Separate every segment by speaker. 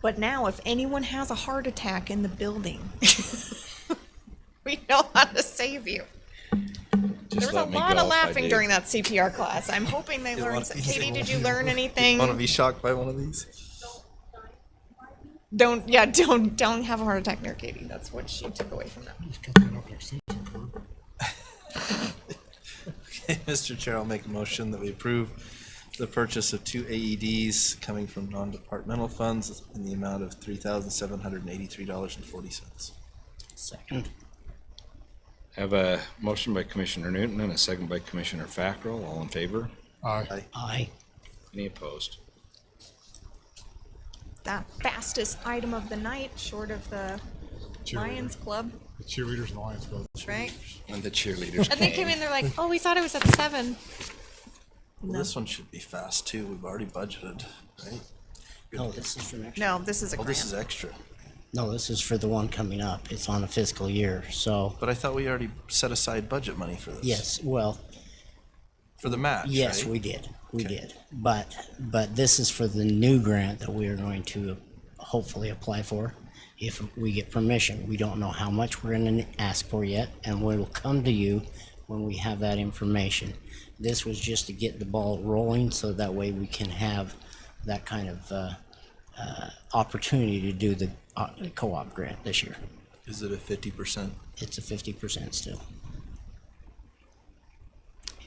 Speaker 1: But now, if anyone has a heart attack in the building, we know how to save you. There
Speaker 2: Just
Speaker 1: was a
Speaker 2: let me
Speaker 1: lot
Speaker 2: go
Speaker 1: of
Speaker 2: if I
Speaker 1: laughing
Speaker 2: do.
Speaker 1: during that CPR class. I'm hoping they learned.
Speaker 3: wanna
Speaker 1: some-
Speaker 3: be-
Speaker 1: Katie, did you learn anything?
Speaker 3: Want to be shocked by one of these?
Speaker 1: Don't yeah, don't don't have a heart attack near Katie. That's what she took away from that.
Speaker 3: Mr. Chair, I'll make a motion that we approve the purchase of two AEDs coming from non-departmental funds in the amount of three thousand seven hundred and eighty-three dollars and forty cents.
Speaker 4: Second.
Speaker 2: Have a motion by Commissioner Newton and a second by Commissioner Fackrell. All in favor?
Speaker 3: Aye.
Speaker 4: Aye.
Speaker 2: Any opposed?
Speaker 1: That fastest item of the night, short of the Lions Club,
Speaker 5: The cheerleaders and Lions Club.
Speaker 1: right?
Speaker 2: And the cheerleaders
Speaker 1: And they came in, they're like, "Oh, we thought it was at seven.
Speaker 3: Well, this one should be fast too. We've already budgeted, right?
Speaker 4: No, this is for next.
Speaker 1: No, this is a
Speaker 3: Well, this is
Speaker 1: grant.
Speaker 3: extra.
Speaker 4: No, this is for the one coming up. It's on a fiscal year, so
Speaker 3: But I thought we already set aside budget money for this.
Speaker 4: yes, well,
Speaker 3: For the match,
Speaker 4: yes,
Speaker 3: right?
Speaker 4: we did, we
Speaker 3: Okay.
Speaker 4: did. But, but this is for the new grant that we are going to hopefully apply for if we get permission. We don't know how much we're gonna ask for yet, and we will come to you when we have that information. This was just to get the ball rolling, so that way we can have that kind of, uh, uh, opportunity to do the uh, co-op grant this year.
Speaker 3: Is it a fifty percent?
Speaker 4: It's a fifty percent still.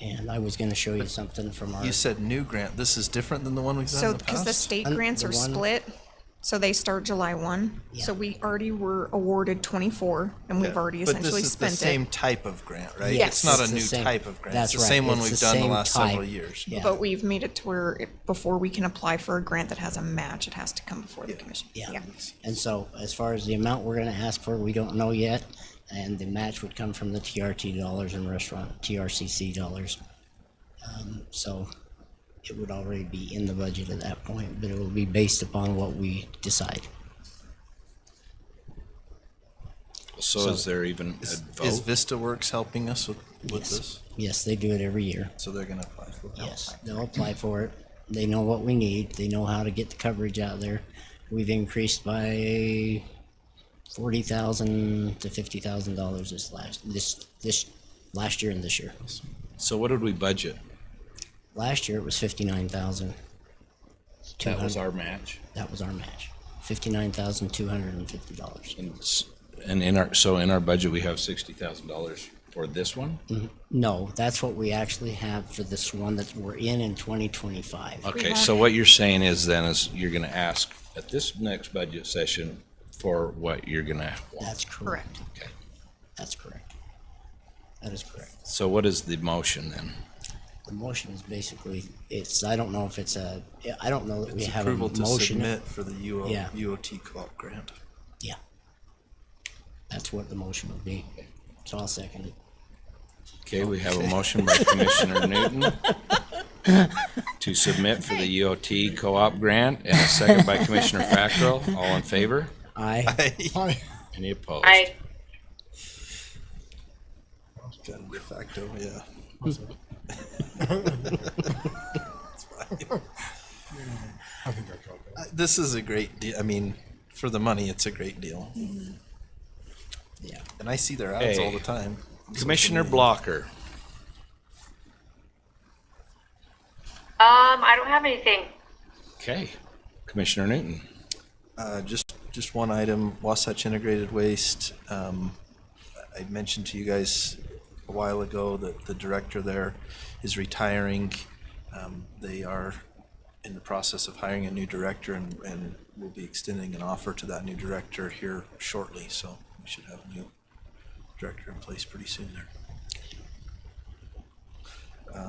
Speaker 4: And I was gonna show you something from our,
Speaker 3: You said new grant. This is different than the one we've done
Speaker 1: So
Speaker 3: in the
Speaker 1: because
Speaker 3: past.
Speaker 1: the state
Speaker 4: And
Speaker 1: grants
Speaker 4: the
Speaker 1: are
Speaker 4: one-
Speaker 1: split, so they start July one. So
Speaker 4: Yeah.
Speaker 1: we already were awarded twenty-four, and we've
Speaker 3: Yeah,
Speaker 1: already
Speaker 3: but this
Speaker 1: essentially
Speaker 3: is
Speaker 1: spent
Speaker 3: the same
Speaker 1: it.
Speaker 3: type of grant, right?
Speaker 1: Yes.
Speaker 3: It's not
Speaker 4: It's
Speaker 3: a
Speaker 4: the
Speaker 3: new
Speaker 4: same-
Speaker 3: type of grant.
Speaker 4: that's
Speaker 3: it's the
Speaker 4: right,
Speaker 3: same one
Speaker 4: it's
Speaker 3: we've
Speaker 4: the
Speaker 3: done the
Speaker 4: same
Speaker 3: last several
Speaker 4: type,
Speaker 3: years.
Speaker 4: yeah.
Speaker 1: But we've made it to where it- before we can apply for a grant that has a match, it has to come before the commission.
Speaker 4: yeah. And so as far as the amount we're gonna ask for, we don't know yet. And the match would come from the TRT dollars and restaurant, TRCC dollars. Um, so it would already be in the budget at that point, but it will be based upon what we decide.
Speaker 2: So is there even a
Speaker 3: Is
Speaker 2: vote?
Speaker 3: Vista Works helping us with, with
Speaker 4: Yes.
Speaker 3: this?
Speaker 4: Yes, they do it every year.
Speaker 3: So they're going to apply for it.
Speaker 4: Yes, they'll apply for it. They know what we need. They know how to get the coverage out there. We've increased by forty thousand to fifty thousand dollars this last, this, this, last year and this year.
Speaker 2: So what did we budget?
Speaker 4: Last year it was fifty-nine thousand.
Speaker 2: That was our match.
Speaker 4: That was our match. Fifty-nine thousand, two hundred and fifty dollars.
Speaker 2: And s- And in our, so in our budget, we have sixty thousand dollars for this one?
Speaker 4: No, that's what we actually have for this one that we're in in twenty twenty-five.
Speaker 2: Okay, so what you're saying is then is you're gonna ask at this next budget session for what you're gonna want.
Speaker 4: That's correct.
Speaker 1: Correct.
Speaker 2: Okay.
Speaker 4: That's correct. That is correct.
Speaker 2: So what is the motion then?
Speaker 4: The motion is basically, it's, I don't know if it's a, I don't know that we
Speaker 3: It's
Speaker 4: have a
Speaker 3: approval to
Speaker 4: motion.
Speaker 3: submit for the UO,
Speaker 4: Yeah.
Speaker 3: UOT co-op grant.
Speaker 4: Yeah. That's what the motion would be. So I'll second it.
Speaker 2: Okay, we have a motion by Commissioner Newton to submit for the UOT co-op grant and a second by Commissioner Fackrell. All in favor?
Speaker 4: Aye.
Speaker 5: Hi.
Speaker 2: Any opposed?
Speaker 6: I
Speaker 3: Kind of de facto, yeah.
Speaker 5: I think I caught that.
Speaker 3: This is a great deal. I mean, for the money, it's a great deal.
Speaker 4: Yeah.
Speaker 3: And I see their ads all
Speaker 2: Hey.
Speaker 3: the time.
Speaker 2: Commissioner Blocker.
Speaker 6: um I don't have anything.
Speaker 2: Okay. Commissioner Newton.
Speaker 3: Uh, just, just one item, Wasatch Integrated Waste. Um, I mentioned to you guys a while ago that the director there is retiring. Um, they are in the process of hiring a new director and, and we'll be extending an offer to that new director here shortly. So we should have a new director in place pretty soon there.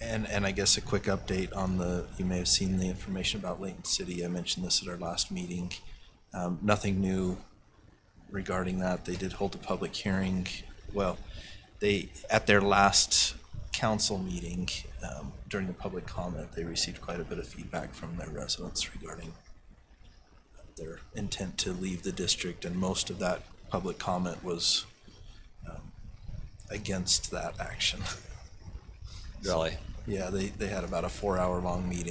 Speaker 3: And, and I guess a quick update on the, you may have seen the information about Layton City. I mentioned this at our last meeting. Um, nothing new regarding that. They did hold a public hearing. Well, they, at their last council meeting, um, during the public comment, they received quite a bit of feedback from their residents regarding their intent to leave the district, and most of that public comment was, um, against that action.
Speaker 2: Really?
Speaker 3: Yeah, they, they had about a four hour long meeting.